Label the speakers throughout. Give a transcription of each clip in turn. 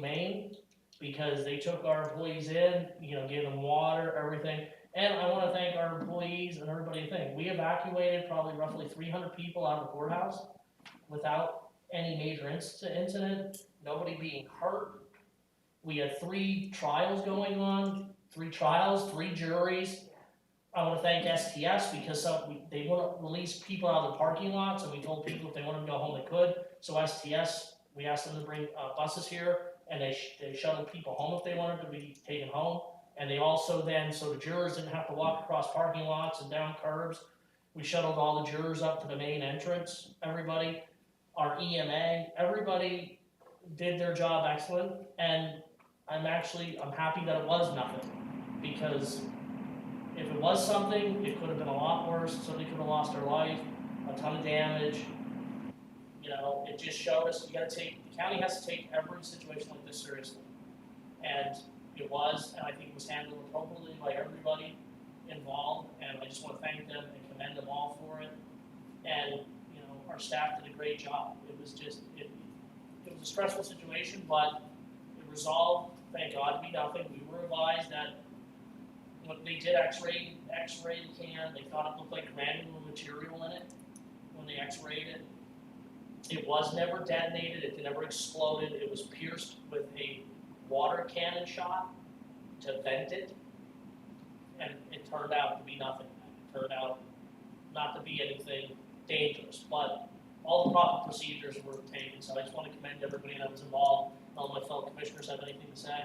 Speaker 1: humane because they took our employees in, you know, gave them water, everything. And I wanna thank our employees and everybody, thing, we evacuated probably roughly three hundred people out of the courthouse without any major inci- incident, nobody being hurt. We had three trials going on, three trials, three juries. I wanna thank STS because some, we- they wouldn't release people out of the parking lots, and we told people if they wanted to go home, they could. So STS, we asked them to bring, uh, buses here, and they, sh- they shuttled people home if they wanted to be taken home. And they also then, so the jurors didn't have to walk across parking lots and down curbs. We shuttled all the jurors up to the main entrance, everybody, our EMA, everybody did their job excellent, and I'm actually, I'm happy that it was nothing, because if it was something, it could have been a lot worse, somebody could have lost their life, a ton of damage. You know, it just showed us, you gotta take, the county has to take every situation like this seriously. And it was, and I think it was handled appropriately by everybody involved, and I just wanna thank them and commend them all for it. And, you know, our staff did a great job, it was just, it, it was a stressful situation, but it resolved, thank God, we nothing, we were advised that when they did x-ray, x-ray the can, they thought it looked like granular material in it when they x-rayed it. It was never detonated, it never exploded, it was pierced with a water cannon shot to vent it. And it turned out to be nothing, it turned out not to be anything dangerous, but all the proper procedures were taken, so I just wanna commend everybody that was involved. None of my fellow commissioners have anything to say.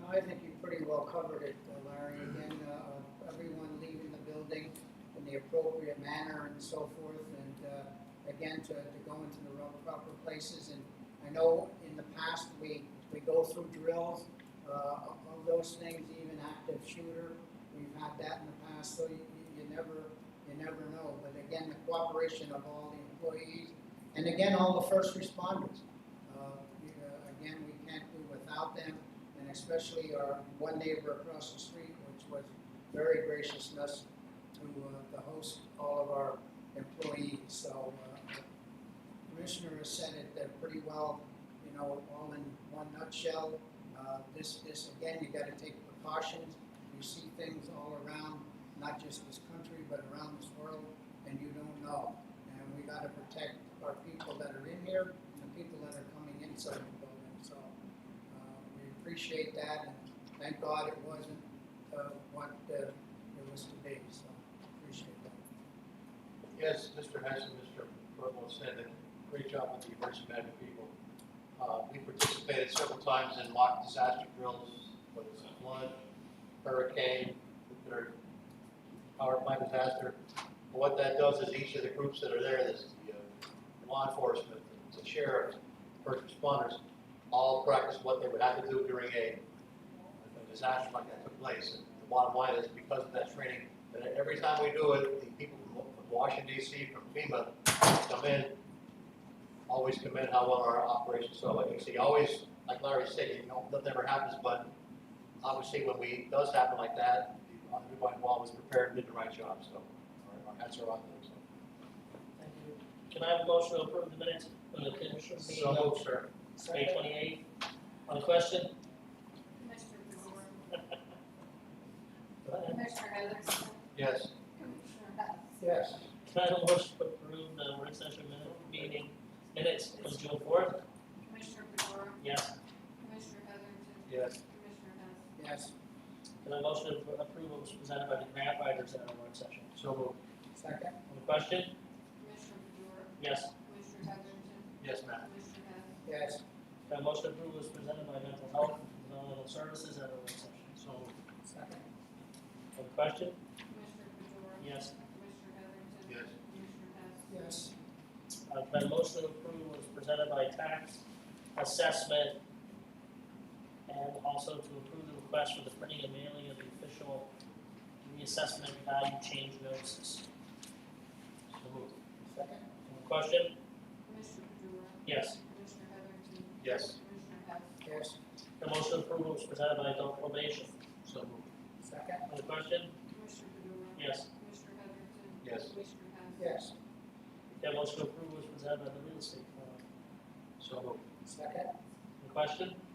Speaker 2: No, I think you pretty well covered it, uh, Larry, again, uh, everyone leaving the building in the appropriate manner and so forth, and, uh, again, to, to go into the real proper places, and I know in the past, we, we go through drills, uh, of of those things, even active shooter, we've had that in the past, so you, you- you never, you never know, but again, the cooperation of all the employees, and again, all the first responders. Uh, you know, Again, we can't do without them, and especially our one neighbor across the street, which was very graciousness to, uh, to host all of our employees, so, uh, the Commissioner has said it, uh pretty well, you know, all in one nutshell. Uh, this, this, again, you gotta take precautions, you see things all around, not just this country, but around this world, and you don't know. And we gotta protect our people that are in here and the people that are coming inside the building, so, uh, we appreciate that, and thank God it wasn't, uh, what, uh, it was to be, so, appreciate that.
Speaker 3: Yes, Mr. Hess and Mr. Burwell said that, great job with the emergency management people. Uh, we participated several times in mock disaster drills, whether it's a flood, hurricane, or power plant disaster. And What that does is each of the groups that are there, this is the uh, law enforcement, the sheriff, first responders, all practice what they would have to do during a a disaster like that took place. And the bottom line is because of that training, but every time we do it, the people from from Washington DC, from FEMA, come in, always commend how well our operations, so like you see, always, like Larry said, you know, that never happens, but obviously when we, does happen like that, everybody involved was prepared and did the right job, so our- our hats are off to them.
Speaker 1: Thank you. Can I have a motion to approve the minutes from the commissioners meeting
Speaker 3: So
Speaker 1: on
Speaker 3: moved, sir.
Speaker 1: May twenty-eighth? On the question?
Speaker 4: Commissioner Blumer,
Speaker 1: Go ahead.
Speaker 4: Commissioner Heatherington,
Speaker 3: Yes.
Speaker 4: Commissioner Hess.
Speaker 3: Yes.
Speaker 1: Can I have a motion to approve the work session minute, meeting minutes from June fourth?
Speaker 4: Commissioner Blumer,
Speaker 1: Yes.
Speaker 4: Commissioner Heatherington,
Speaker 3: Yes.
Speaker 4: Commissioner Hess.
Speaker 2: Yes,
Speaker 1: Can I have a motion to approve what was presented by the grant writers at our work session?
Speaker 3: So moved.
Speaker 2: second,
Speaker 1: On the question?
Speaker 4: Commissioner Blumer,
Speaker 1: Yes.
Speaker 4: Commissioner Heatherington,
Speaker 3: Yes, ma'am.
Speaker 4: Commissioner Hess.
Speaker 2: yes,
Speaker 1: Can I have a motion to approve what was presented by mental health and developmental services at our work session? So,
Speaker 2: second,
Speaker 1: on the question?
Speaker 4: Commissioner Blumer,
Speaker 1: Yes.
Speaker 4: Commissioner Heatherington,
Speaker 3: Yes.
Speaker 4: Commissioner Hess.
Speaker 2: yes,
Speaker 1: Uh, can I have a motion to approve what was presented by tax assessment? And also to approve the request for the printing and mailing of the official reassessment value change notices.
Speaker 3: So moved.
Speaker 2: second,
Speaker 1: Any Question?
Speaker 4: Commissioner Blumer,
Speaker 1: Yes.
Speaker 4: Commissioner Heatherington,
Speaker 3: Yes.
Speaker 4: Commissioner Hess.
Speaker 2: yes,
Speaker 1: The motion to approve was presented by adult probation.
Speaker 3: So moved.
Speaker 2: second,
Speaker 1: On the question?
Speaker 4: Commissioner Blumer,
Speaker 1: Yes.
Speaker 4: Commissioner Heatherington,
Speaker 3: Yes.
Speaker 4: Commissioner Hess.
Speaker 2: yes,
Speaker 1: That motion to approve was presented by the real estate firm.
Speaker 3: So moved.
Speaker 2: second,
Speaker 1: On the uh, question?